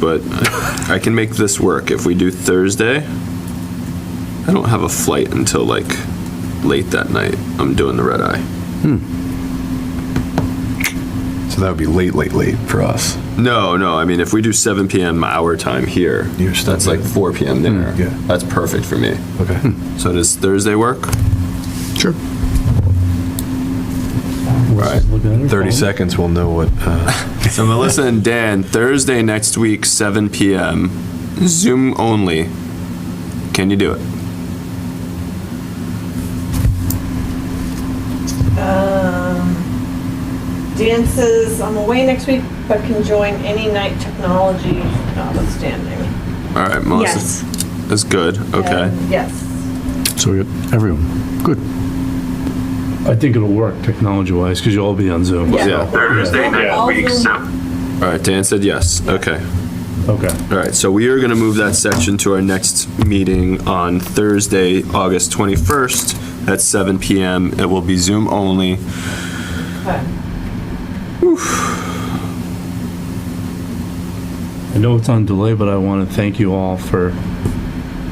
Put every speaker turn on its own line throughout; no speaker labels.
but I can make this work. If we do Thursday, I don't have a flight until like late that night. I'm doing the red eye.
So that would be late, late, late for us.
No, no, I mean, if we do seven PM our time here,
You're still
that's like
good.
four PM there.
yeah.
That's perfect for me.
Okay.
So does Thursday work?
Sure.
Right.
30 seconds, we'll know what, uh,
So Melissa and Dan, Thursday next week, seven PM, Zoom only. Can you do it?
Dances, I'm away next week, but can join any night technology notwithstanding.
All right, Melissa. That's good, okay.
And Yes.
So we got everyone. Good.
I think it'll work technology-wise, because you'll all be on Zoom.
Yeah.
Yeah.
Thursday next
All
week,
Zoom.
so.
All right, Dan said yes, okay.
Okay.
All right, so we are going to move that section to our next meeting on Thursday, August 21st at 7 PM. It will be Zoom only.
Okay.
I know it's on delay, but I want to thank you all for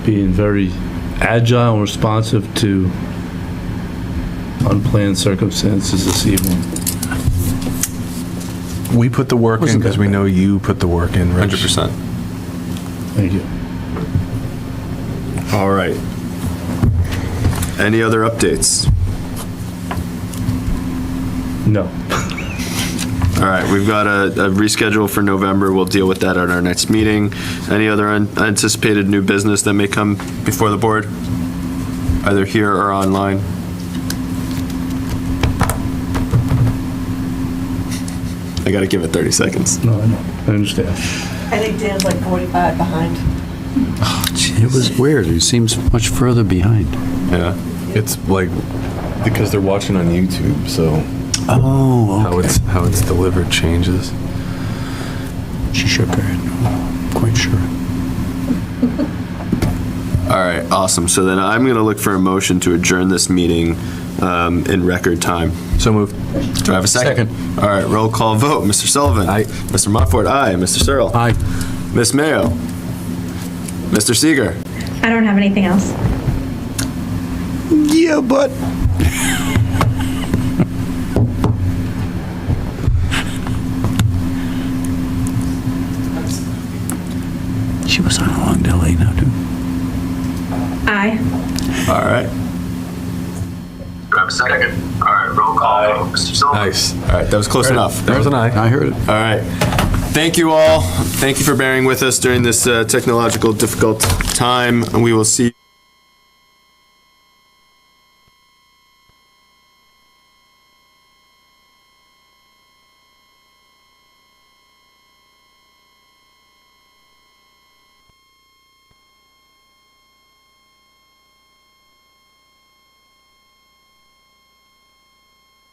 being very agile and responsive to unplanned circumstances this evening.
we put the work in
Wasn't
because
that
we
bad.
know you put the work in, Rich.
100%.
Thank you.
All right. Any other updates?
No.
All right, we've got a a reschedule for November. We'll deal with that at our next meeting. Any other anticipated new business that may come before the board? Either here or online? I gotta give it 30 seconds.
No, I know. I understand.
I think Dan's like 45 behind.
It was weird. He seems much further behind.
Yeah.
It's like, because they're watching on YouTube, so
Oh,
how it's, how it's delivered changes.
She shook her head. Quite sure.
All right, awesome. So then I'm gonna look for a motion to adjourn this meeting um, in record time.
So moved.
Do I have a second? All right, roll call vote. Mr. Sullivan?
Aye.
Mr. Montfort, aye. Mr. Searle?
Aye.
Miss Mayo? Mr. Seeger?
I don't have anything else.
Yeah, but.
She was on a long delay now, too.
Aye.
All right.
Do I have a second? All right, roll call. vote. Mr. Sullivan?
Nice.
All right, that was close enough.
There was an eye.
I heard it.
All right. Thank you all. Thank you for bearing with us during this uh, technological difficult time. We will see.